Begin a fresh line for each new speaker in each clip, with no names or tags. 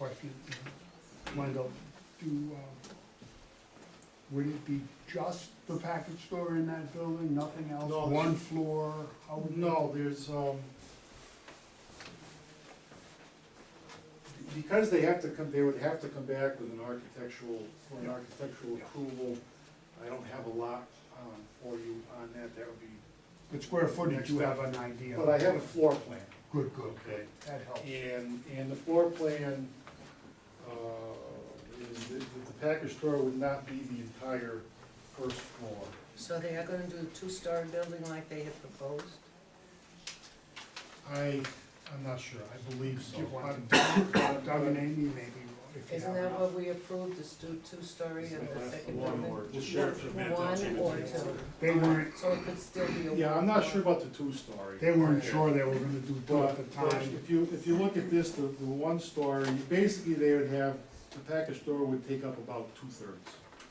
or if you want to go uh, do, uh, would it be just the package store in that building, nothing else?
No.
One floor? How would-
No, there's, um, because they have to come, they would have to come back with an architectural, for an architectural approval. I don't have a lot, um, for you on that, that would be,
But square footage, you have an idea?
but I have a floor plan,
Good, good,
okay?
that helps.
And, and the floor plan, uh, is that that the package store would not be the entire first floor.
So they are gonna do a two-story building like they had proposed?
I, I'm not sure, I believe so.
Do you want
I'm-
Doug and Amy, maybe, if you
Isn't
have
that
enough.
what we approved, is two, two-story and the second
One
building?
or two.
One or two?
They weren't,
So it could still be a.
Yeah, I'm not sure about the two-story.
they weren't sure they were gonna do two
But
at the
but
time.
if you, if you look at this, the, the one story, basically they would have, the package store would take up about two-thirds,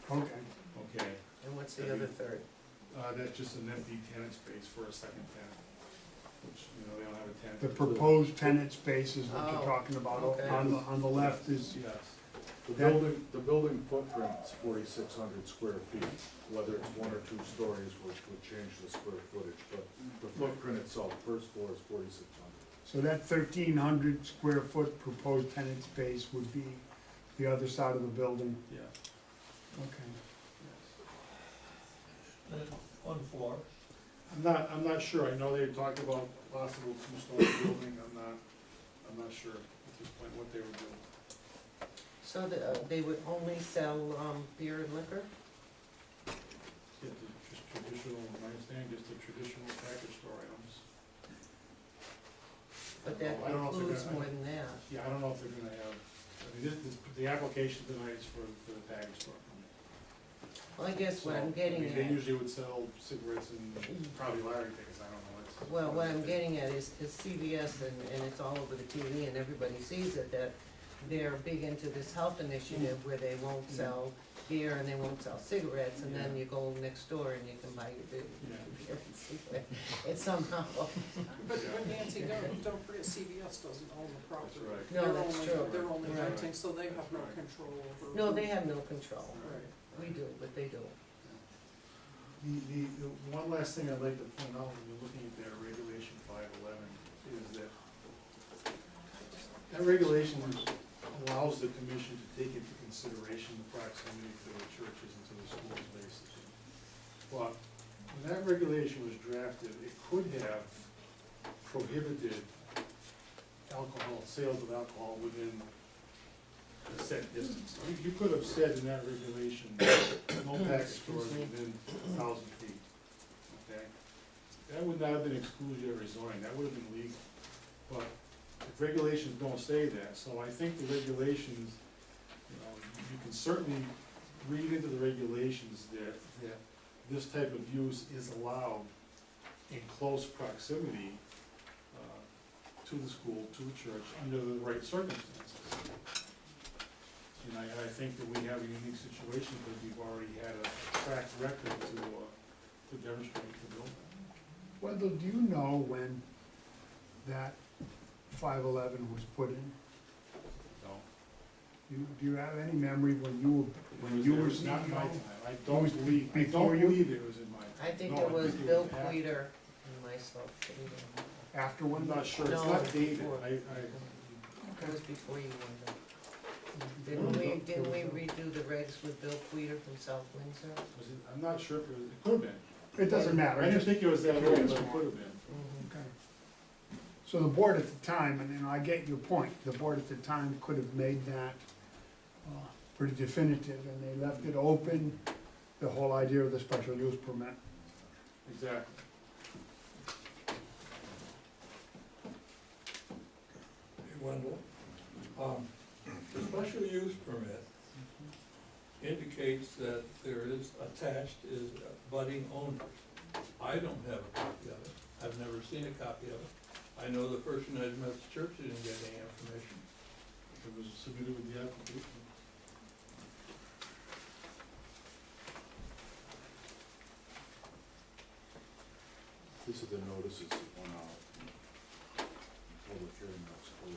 Okay,
okay?
And what's the other third?
Uh, that's just an empty tenant space for a second tenant, which, you know, they don't have a tenant.
the proposed tenant space is what you're
Oh,
talking about,
okay.
on the, on the left is,
Yes.
The building, the building footprint's forty-six hundred square feet, whether it's one or two stories would, would change the square footage, but the footprint itself, first floor is forty-six hundred.
so that thirteen hundred square foot proposed tenant space would be the other side of the building,
Yeah.
okay.
One floor.
I'm not, I'm not sure, I know they talked about possible two-story building, I'm not, I'm not sure at this point what they were doing.
So the, uh, they would only sell, um, beer and liquor?
Yeah, the just traditional, my understanding, just the traditional package store items.
But that
I don't know if they're
includes
gonna-
more than that.
Yeah, I don't know if they're gonna have, I mean, this, this, the application tonight is for, for the package store. permit.
Well, I guess what
So,
I'm
I
getting
mean,
at.
They usually would sell cigarettes and probably lottery tickets, I don't know, it's.
Well, what I'm getting at is, is CVS and, and it's all over the TV and everybody sees it, that they're big into this health initiative where they won't sell beer and they won't sell cigarettes, and then
Yeah.
you go next door and you can buy your beer,
Yeah.
beer and cigarette. It's somehow,
But but Nancy, don't, don't forget, CVS doesn't own the property.
That's right.
No,
They're
that's
only-
true.
They're only
Right.
renting, so they have no
Right.
control over.
no, they have no control.
Right.
We do, but they don't.
The, the, the one last thing I'd like to point out when you're looking at that regulation five eleven is that that regulation allows the commission to take into consideration the proximity to the churches and to the schools basically. But when that regulation was drafted, it could have prohibited alcohol, sales of alcohol within a set distance. I think You could have said in that regulation, no package stores within a thousand feet, okay? That would not have been exclusionary zoning, that would have been legal, but the regulations don't say that, so I think the regulations, you know, you can certainly read into the regulations that, that this type of use is allowed in close proximity uh, to the school, to the church, under the right circumstances. And I, I think that we have a unique situation because we've already had a track record to, uh, to demonstrate to build that.
Wendell, do you know when that five eleven was put in?
No.
You, do you have any memory when you were When you were E
It was Not my
CEO?
time, I
It
don't
was
believe, I
before
don't
you?
believe it was in my time.
I think
No,
it was Bill
after.
Queter and myself, that
after
I'm
when?
not sure, it's
No.
not dated, I, I,
did it. It was before you were there. Didn't we, didn't we redo the regs with Bill Queter from South Windsor?
Was it- I'm not sure if it was, it could have been.
It doesn't matter, I
I didn't
just,
think it was that early, but it could have been.
Mm-hmm.
okay. So the board at the time, and you know, I get your point, the board at the time could have made that uh, pretty definitive, and they left it open, the whole idea of the special use permit.
Exactly.
Hey, Wendell, um, the special use permit indicates that there is attached is budding owners. I don't have a copy of it. I've never seen a copy of it. I know the person at Methodist Church didn't get any information.
It was submitted with the application.
These are the notices that went out. Public hearing notice.